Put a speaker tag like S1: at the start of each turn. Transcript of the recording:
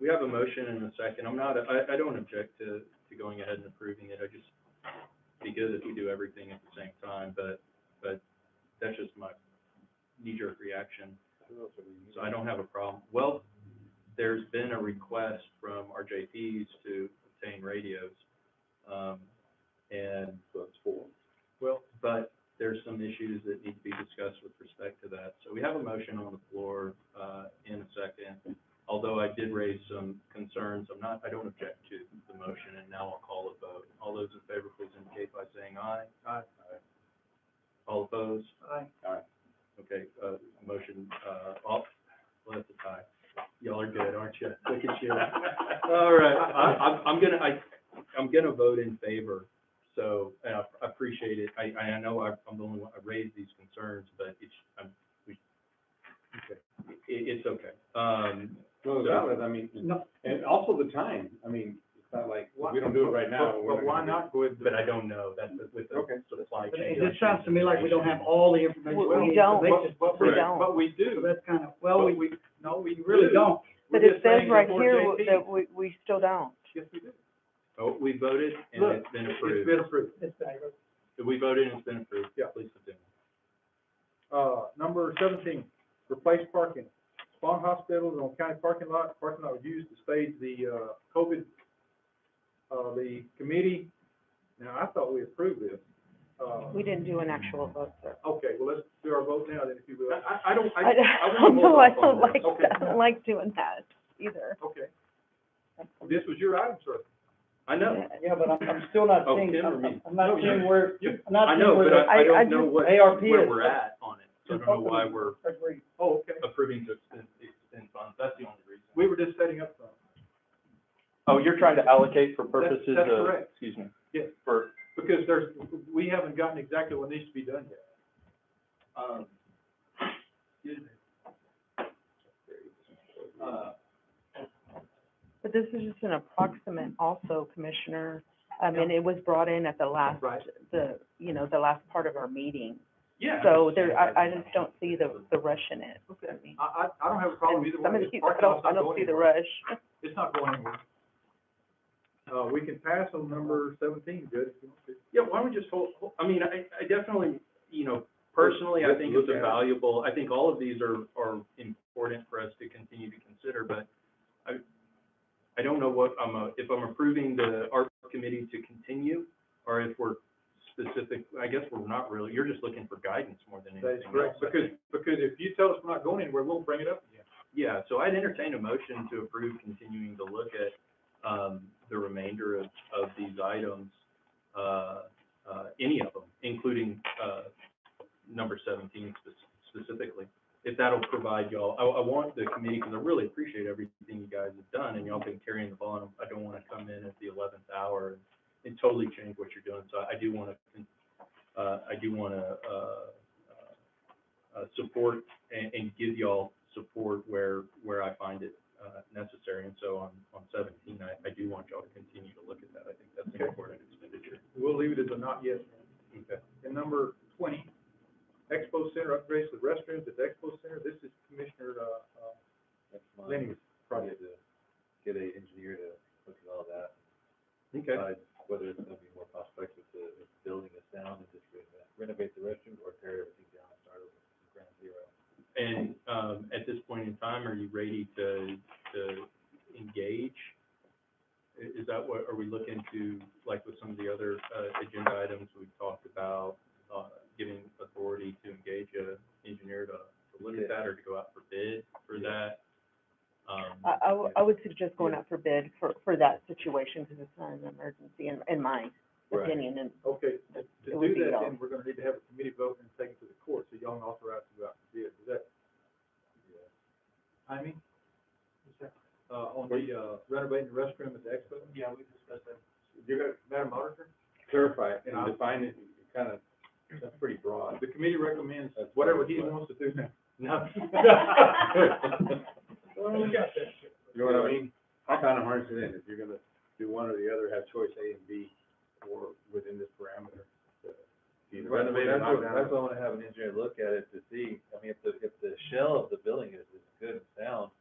S1: We have a motion and a second. I'm not, I, I don't object to, to going ahead and approving it. I just, be good if we do everything at the same time, but, but that's just my knee-jerk reaction. So I don't have a problem. Well, there's been a request from our JPs to obtain radios. Um, and. That's four. Well, but there's some issues that need to be discussed with respect to that. So we have a motion on the floor, uh, in a second. Although I did raise some concerns, I'm not, I don't object to the motion, and now I'll call a vote. All those in favor, please indicate by saying aye. Aye. All opposed? Aye. Aye. Okay, uh, motion, uh, off, well, that's a tie. Y'all are good, aren't you? Look at you. All right, I, I'm, I'm gonna, I, I'm gonna vote in favor, so, and I I appreciate it. I, I know I- I'm the only one, I raised these concerns, but it's, I'm, we, okay. It, it's okay. Um,
S2: Well, that was, I mean,
S3: No.
S2: and also the time, I mean, it's not like, if we don't do it right now.
S3: But-
S2: we're
S3: But why
S2: gonna do it.
S3: not go with the?
S1: but I don't know, that's the- with the
S2: Okay.
S1: supply
S3: But
S1: chain.
S3: It just sounds to me like we don't have all the information.
S4: We- we
S3: need, so
S4: don't.
S3: they just-
S4: But we don't.
S3: But we do. That's kind of, well, we, we, no, we really
S1: do.
S3: don't.
S4: But
S3: We're
S4: it
S3: just
S4: says
S3: saying
S4: right
S3: we're JP.
S4: here that we, we still don't.
S3: Yes, we do.
S1: Oh, we voted and
S3: Look,
S1: it's been
S3: It's
S1: approved.
S3: been approved. It's been approved.
S1: We voted and it's been approved.
S3: Yeah.
S1: Please continue.
S3: Uh, number seventeen, replace parking. Spawn Hospital is on county parking lot, parking lot was used to stage the, uh, COVID, uh, the committee. Now, I thought we approved this. Uh,
S4: We didn't do an actual vote, sir.
S3: okay, well, let's do our vote now then, if you will.
S1: I, I don't,
S4: I
S1: wanna
S4: don't,
S1: hold
S4: no, I
S1: off on
S4: don't
S1: this.
S4: like,
S3: Okay.
S4: I don't like doing that either.
S3: Okay. This was your item, sir.
S1: I know,
S5: Yeah, but I'm, I'm still not
S1: Oh,
S5: seeing,
S1: Tim or
S5: I'm,
S1: me?
S5: I'm not
S1: No, you-
S5: seeing where,
S1: you-
S5: I'm not
S1: I know,
S5: seeing where
S1: but
S5: the,
S1: I, I
S4: I- I
S1: don't know
S4: just-
S1: what,
S5: ARP
S1: where
S5: is-
S1: we're at on it. So I don't know why we're
S5: that's where you-
S3: Oh, okay.
S1: approving to extend, extend funds, that's the only reason.
S3: We were just setting up some.
S6: Oh, you're trying to allocate for
S3: That's-
S6: purposes
S3: that's
S6: of,
S3: correct.
S6: excuse me,
S3: Yes.
S6: for,
S3: Because there's, we haven't gotten exactly what needs to be done yet.
S1: Um, excuse me. Uh,
S4: But this is just an approximate also, Commissioner. I mean, it was brought in at the last,
S3: Right.
S4: the, you know, the last part of our meeting.
S1: Yeah.
S4: So there, I, I just don't see the, the rush in it. I mean,
S3: I, I, I don't have a problem either
S4: some of
S3: way.
S4: these,
S3: It's
S4: I
S3: parking lot's
S4: don't,
S3: not
S4: I don't
S3: going
S4: see the
S3: anywhere.
S4: rush.
S3: It's not going anywhere. Uh, we can pass on number seventeen, Judge. if you want to.
S1: Yeah, why don't we just hold, hold- I mean, I, I definitely, you know, personally, I think it's a valuable, I think all of these are, are important for us to continue to consider, but I, I don't know what I'm, uh, if I'm approving the art committee to continue, or if we're specific, I guess we're not really, you're just looking for guidance more than
S3: That is
S1: anything else.
S3: correct,
S1: I
S3: because,
S1: think.
S3: because if you tell us we're not going anywhere, we'll bring it up again.
S1: Yeah, so I'd entertain a motion to approve continuing to look at, um, the remainder of, of these items, uh, uh, any of them, including, uh, number seventeen spec- specifically. If that'll provide y'all, I, I want the committee, because I really appreciate everything you guys have done, and y'all been carrying the ball, and I don't want to come in at the eleventh hour and- and totally change what you're doing, so I do want to, uh, I do want to, uh, uh, uh, support and, and give y'all support where, where I find it, uh, necessary. And so on, on seventeen, I, I do want y'all to continue to look at that. I think that's an
S3: Okay.
S1: important expenditure.
S3: We'll leave it as a not yet.
S1: Okay.
S3: And number twenty, Expo Center upgrades to the restrooms at the Expo Center. This is Commissioner, uh,
S2: That's
S3: uh,
S2: fine.
S3: Lenny's
S2: Probably to
S3: project.
S2: get a engineer to look at all that,
S1: Okay.
S2: decide whether it's gonna be more cost effective to, if the building is down and just renov- renovate the restrooms or tear everything down and start over from ground zero.
S1: And, um, at this point in time, are you ready to, to engage? I- Is that what, are we looking to, like with some of the other, uh, agenda items we've talked about, uh, giving authority to engage a engineer to, to look at that or to go out for bid for that? Um,
S4: I, I w- I would suggest going out for bid for, for that situation, because it's not an emergency in, in my opinion, and
S3: Okay, to
S4: It
S3: to
S4: would
S3: do
S4: be
S3: that,
S4: y'all.
S3: then we're gonna need to have a committee vote and take it to the court, so y'all can authorize to go out and bid. Is that? Timing? Uh, on the, uh, renovating the restroom at the expo? Yeah, we discussed that. You got, Madam Auditor?
S2: Clarify it
S3: Yeah.
S2: and define it, It kind of, that's pretty broad.
S3: The committee recommends
S2: That's
S3: whatever he
S2: what-
S3: wants to do now.
S1: No.
S2: You know what I mean? I kind of harness it in, if you're gonna do one or the other, have choice A and B, or within this parameter. Either
S3: Right,
S2: renovate or
S3: that's
S2: knock
S3: what-
S2: down.
S3: that's
S2: I wanna have an engineer look at it to see, I mean, if the, if the shell of the building is, is good and sound,